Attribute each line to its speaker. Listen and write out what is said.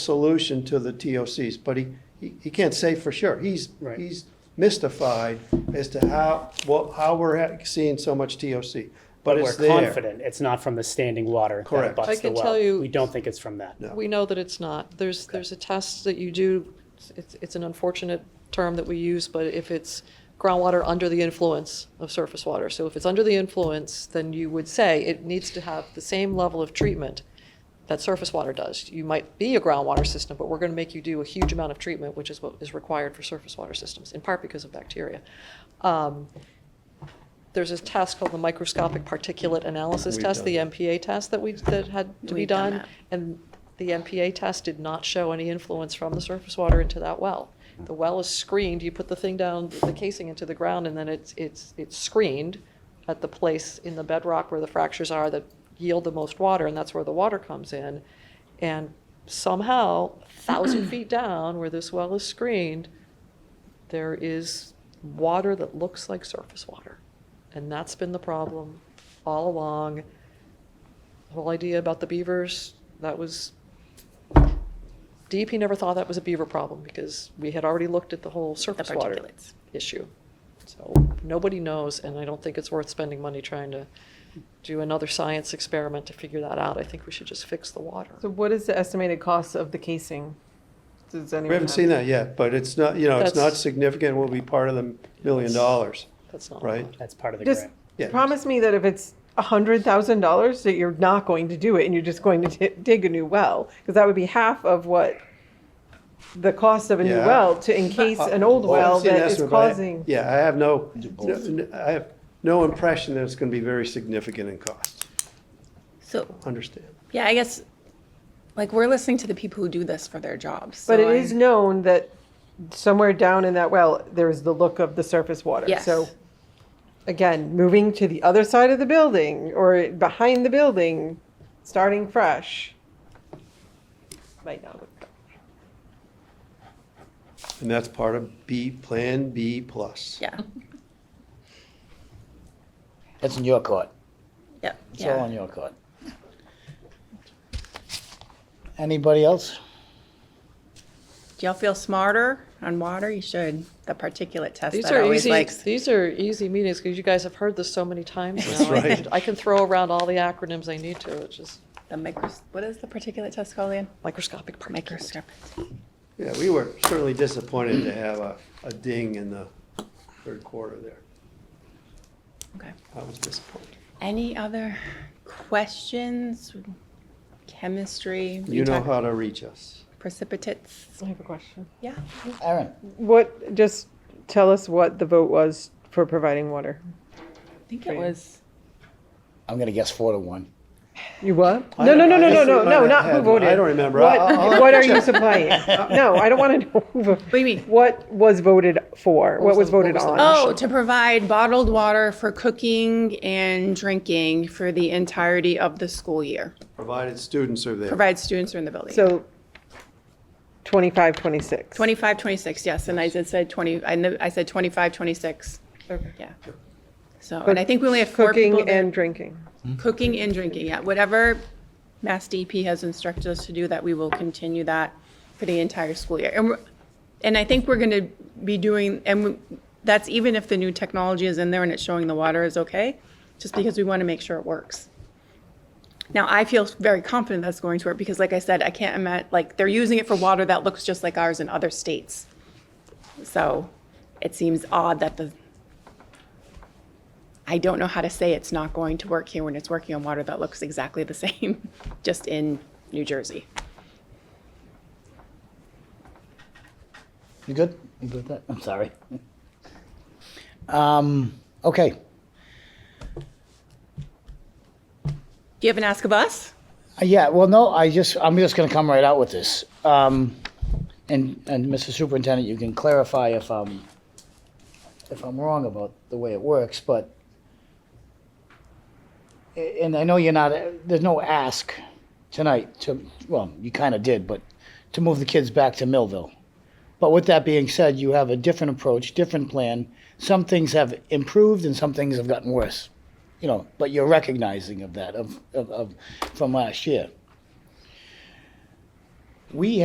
Speaker 1: solution to the TOCs, but he, he, he can't say for sure. He's,
Speaker 2: Right.
Speaker 1: he's mystified as to how, well, how we're ha- seeing so much TOC, but
Speaker 2: We're
Speaker 1: it's there.
Speaker 2: confident it's not from the standing water
Speaker 1: Correct.
Speaker 2: that butts
Speaker 3: I
Speaker 2: the
Speaker 3: can
Speaker 2: well.
Speaker 3: tell you-
Speaker 2: We don't think it's from that.
Speaker 1: No.
Speaker 3: We know that it's not. There's, there's a test that you do, it's, it's an unfortunate term that we use, but if it's groundwater under the influence of surface water. So if it's under the influence, then you would say it needs to have the same level of treatment that surface water does. You might be a groundwater system, but we're going to make you do a huge amount of treatment, which is what is required for surface water systems, in part because of bacteria. Um, There's a test called the microscopic particulate analysis
Speaker 1: We've
Speaker 3: test,
Speaker 1: done
Speaker 3: the
Speaker 1: that.
Speaker 3: MPA test that we, that had to be
Speaker 4: We've done
Speaker 3: done.
Speaker 4: that.
Speaker 3: And the MPA test did not show any influence from the surface water into that well. The well is screened, you put the thing down, the casing into the ground, and then it's, it's, it's screened at the place in the bedrock where the fractures are that yield the most water, and that's where the water comes in. And somehow, a thousand feet down where this well is screened, there is water that looks like surface water. And that's been the problem all along. The whole idea about the beavers, that was, DEP never thought that was a beaver problem because we had already looked at the whole
Speaker 4: the
Speaker 3: surface water
Speaker 4: particulates.
Speaker 3: issue. So nobody knows, and I don't think it's worth spending money trying to do another science experiment to figure that out. I think we should just fix the water.
Speaker 5: So what is the estimated cost of the casing? Does anyone
Speaker 1: We haven't
Speaker 5: have-
Speaker 1: seen that yet, but it's not, you know, it's not
Speaker 3: That's-
Speaker 1: significant, will be part of the million dollars.
Speaker 3: That's not
Speaker 1: Right.
Speaker 3: allowed.
Speaker 2: That's part of the
Speaker 5: Just
Speaker 2: grant.
Speaker 1: Yeah.
Speaker 5: promise me that if it's a hundred thousand dollars, that you're not going to do it and you're just going to di- dig a new well, because that would be half of what the cost of a new
Speaker 1: Yeah.
Speaker 5: well to encase an old
Speaker 1: Uh, Well, I haven't
Speaker 5: well
Speaker 1: seen an
Speaker 5: that is
Speaker 1: estimate, but I-
Speaker 5: causing.
Speaker 1: Yeah, I have no, no- I have no impression that it's gonna be very significant in cost,
Speaker 4: So,
Speaker 1: understand.
Speaker 4: yeah, I guess, like, we're listening to the people who do this for their jobs.
Speaker 5: But
Speaker 4: so
Speaker 5: it is
Speaker 4: I-
Speaker 5: known that somewhere down in that well, there is the look of the surface water.
Speaker 4: Yes.
Speaker 5: So again, moving to the other side of the building or behind the building, starting fresh. Might not look.
Speaker 1: And that's part of B, Plan B plus.
Speaker 4: Yeah,
Speaker 6: That's in your court.
Speaker 4: yeah,
Speaker 6: It's all
Speaker 4: yeah.
Speaker 6: on your court. Anybody else?
Speaker 4: Do y'all feel smarter on water? You should. The particulate test
Speaker 3: These
Speaker 4: that
Speaker 3: are
Speaker 4: always
Speaker 3: easy,
Speaker 4: likes.
Speaker 3: these are easy meetings because you guys have heard this so many times now. I
Speaker 1: right.
Speaker 3: can- I can throw around all the acronyms I need to, which is
Speaker 4: The micros, what is the particulate test called again?
Speaker 3: microscopic particulates.
Speaker 4: Microscopic.
Speaker 1: Yeah, we were certainly disappointed to have a, a ding in the third quarter there.
Speaker 4: Okay.
Speaker 1: I was disappointed.
Speaker 4: Any other questions? Chemistry?
Speaker 1: You know
Speaker 4: talk-
Speaker 1: how to reach us.
Speaker 4: Precipitates?
Speaker 5: I have a question.
Speaker 4: Yeah.
Speaker 6: Aaron,
Speaker 5: What, just tell us what the vote was for providing water.
Speaker 4: I think
Speaker 5: Great.
Speaker 4: it was.
Speaker 6: I'm gonna guess four to one.
Speaker 5: You what?
Speaker 1: I
Speaker 5: No, no,
Speaker 1: don't-
Speaker 5: no,
Speaker 1: I
Speaker 5: no, no,
Speaker 1: just
Speaker 5: no,
Speaker 1: might
Speaker 5: no,
Speaker 1: have
Speaker 5: not who
Speaker 1: had one.
Speaker 5: voted.
Speaker 1: I don't remember.
Speaker 5: What,
Speaker 1: I'll- I'll-
Speaker 5: what are you supplying?
Speaker 1: Uh-uh.
Speaker 5: No, I don't want to know. who vo-
Speaker 4: do you mean?
Speaker 5: What was voted for? What
Speaker 3: was
Speaker 5: was
Speaker 3: the- what
Speaker 5: voted
Speaker 3: was the-
Speaker 5: on?
Speaker 4: Oh, to provide bottled water for cooking and drinking for the entirety of the school year.
Speaker 1: Provided students are there.
Speaker 4: Provide students who are in the building.
Speaker 5: So 25, 26.
Speaker 4: 25, 26, yes, and I just said 20, I know, I said 25, 26. Yeah. So, and I think we only have four people
Speaker 5: Cooking
Speaker 4: there.
Speaker 5: and drinking.
Speaker 4: Cooking and drinking, yeah. Whatever Mass DEP has instructed us to do, that we will continue that for the entire school year. And, we're- and I think we're going to be doing, and we- that's even if the new technology is in there and it's showing the water is okay, just because we want to make sure it works. Now, I feel very confident that's going to work because like I said, I can't imagine, like, they're using it for water that looks just like ours in other states. So it seems odd that the, I don't know how to say it's not going to work here when it's working on water that looks exactly the same, just in New Jersey.
Speaker 6: You good? You good with that? I'm sorry. Um, okay,
Speaker 4: Do you have an ask of us?
Speaker 6: Uh, yeah, well, no, I just, I'm just gonna come right out with this. Um, and, and Mr. Superintendent, you can clarify if I'm, if I'm wrong about the way it works, but a- and I know you're not, there's no ask tonight to, well, you kind of did, but to move the kids back to Millville. But with that being said, you have a different approach, different plan. Some things have improved and some things have gotten worse. You know, but you're recognizing of that of, of, of from last year. We